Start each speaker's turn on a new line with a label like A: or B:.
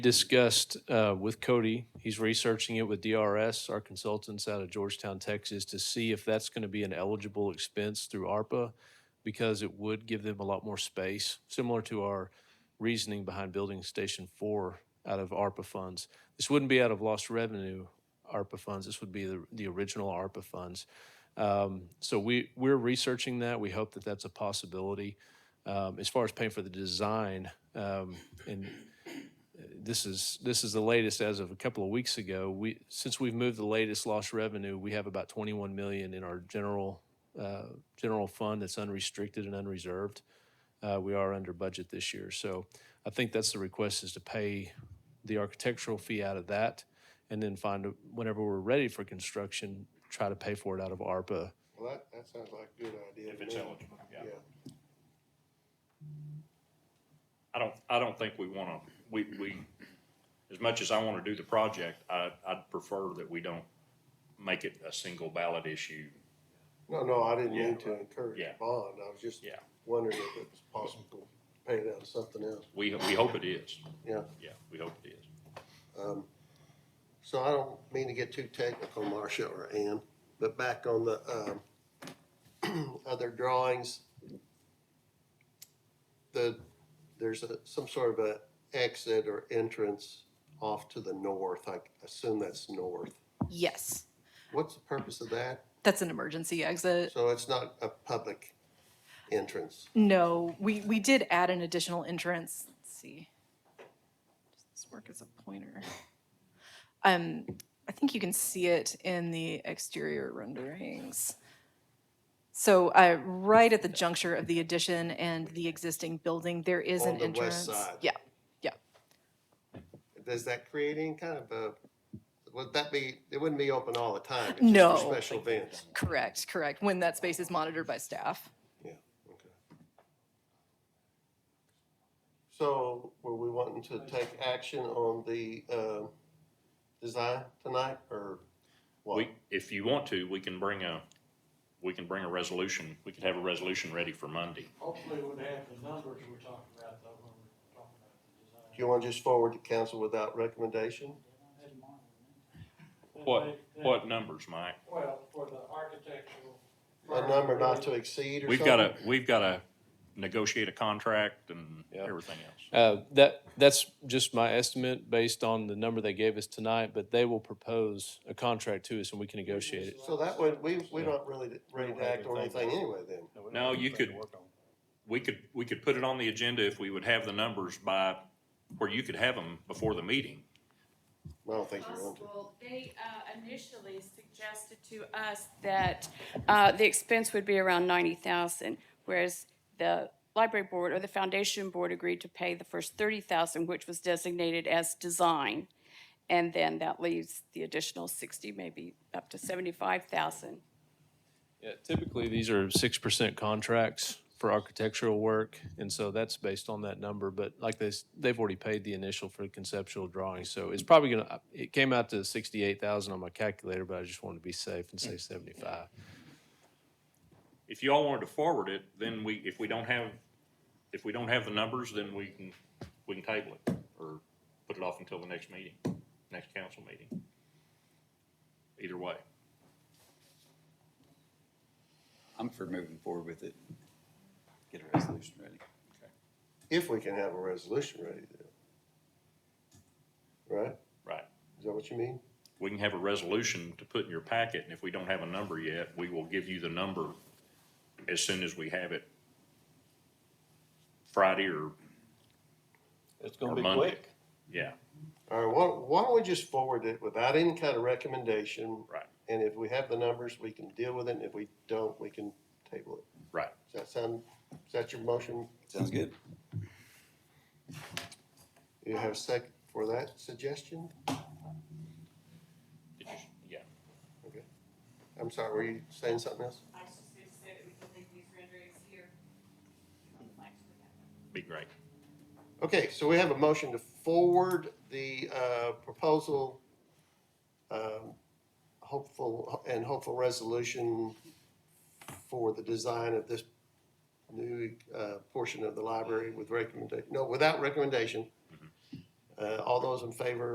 A: discussed uh, with Cody, he's researching it with DRS, our consultants out of Georgetown, Texas, to see if that's going to be an eligible expense through ARPA because it would give them a lot more space, similar to our reasoning behind building Station 4 out of ARPA funds. This wouldn't be out of lost revenue ARPA funds. This would be the, the original ARPA funds. Um, So we, we're researching that. We hope that that's a possibility. Um, As far as paying for the design, um, and this is this is the latest as of a couple of weeks ago. We since we've moved the latest lost revenue, we have about 21 million in our general uh, general fund that's unrestricted and unreserved. Uh, we are under budget this year, so I think that's the request is to pay the architectural fee out of that, and then find a- whenever we're ready for construction, try to pay for it out of ARPA.
B: Well, that, that sounds like a good idea.
C: If
B: to
C: it's
B: me.
C: eligible, yeah.
B: Yeah,
C: I don't, I don't think we wanna, we, we, as much as I wanna do the project, I, I'd prefer that we don't make it a single ballot issue.
B: no, no, I didn't
C: Yeah.
B: mean to encourage
C: Yeah.
B: a bond, I was just
C: Yeah.
B: wondering if it was possible to pay it out of something else,
C: We, we hope it is.
B: yeah.
C: Yeah, we hope it is.
B: Um, So I don't mean to get too technical, Marcia or Ann, but back on the, um, other drawings, the, there's a, some sort of a exit or entrance off to the north, I assume that's north.
D: Yes,
B: What's the purpose of that?
D: that's an emergency exit.
B: So it's not a public entrance?
D: No, we, we did add an additional entrance. Let's see. Does this work as a pointer? Um, I think you can see it in the exterior renderings. So, uh, right at the juncture of the addition and the existing building, there is
B: On
D: an
B: the west
D: entrance.
B: side.
D: Yeah,
B: Does that create any kind of a, would that be, it wouldn't be open all the time? it's just for
D: No.
B: Special events?
D: correct, correct. When that space is monitored by staff.
B: Yeah, okay. So were we wanting to take action on the, um, design tonight or what?
C: We, if you want to, we can bring a, we can bring a resolution, we could have a resolution ready for Monday.
E: Hopefully we'd have the numbers we're talking about though, when we're talking about the
B: Do
E: design.
B: you want to just forward to council without recommendation?
C: What, what numbers, Mike?
E: Well, for the architectural.
B: A number not to exceed or something?
C: We've gotta, we've gotta negotiate a contract and
A: Yeah.
C: everything else.
A: Uh, That, that's just my estimate based on the number they gave us tonight, but they will propose a contract to us and we can negotiate it.
B: So that would, we, we're not really ready to act on anything anyway then?
C: No, you could, we could, we could put it on the agenda if we would have the numbers by, where you could have them before the meeting.
B: I don't think you want to.
F: possible. They uh, initially suggested to us that uh, the expense would be around ninety thousand, whereas the library board or the foundation board agreed to pay the first thirty thousand, which was designated as design. And then that leaves the additional sixty, maybe up to seventy-five thousand.
A: Yeah, typically, these are six percent contracts for architectural work, and so that's based on that number, but like they, s- they've already paid the initial for the conceptual drawing, so it's probably gonna, it came out to sixty-eight thousand on my calculator, but I just wanted to be safe and say seventy-five.
C: If you all wanted to forward it, then we, if we don't have, if we don't have the numbers, then we can, we can table it or put it off until the next meeting, next council meeting. Either way.
G: I'm for moving forward with it. Get a resolution ready.
B: If we can have a resolution ready then. Right?
C: Right.
B: Is that what you mean?
C: We can have a resolution to put in your packet, and if we don't have a number yet, we will give you the number as soon as we have it Friday or,
H: It's
C: or
H: gonna be
C: Monday.
H: quick.
C: Yeah,
B: All right, why, why don't we just forward it without any kind of recommendation?
C: Right.
B: And if we have the numbers, we can deal with it, and if we don't, we can table it.
C: right.
B: Does that sound, is that your motion?
G: Sounds good.
B: You have a second for that suggestion?
C: Did you- Yeah.
B: Okay. I'm sorry, were you saying something else?
F: I was just gonna say that we can leave these renderings here.
C: Be great.
B: Okay, so we have a motion to forward the uh, proposal, um, hopeful, and hopeful resolution for the design of this new uh, portion of the library with recommendation, no, without recommendation, uh, Uh, all those in favor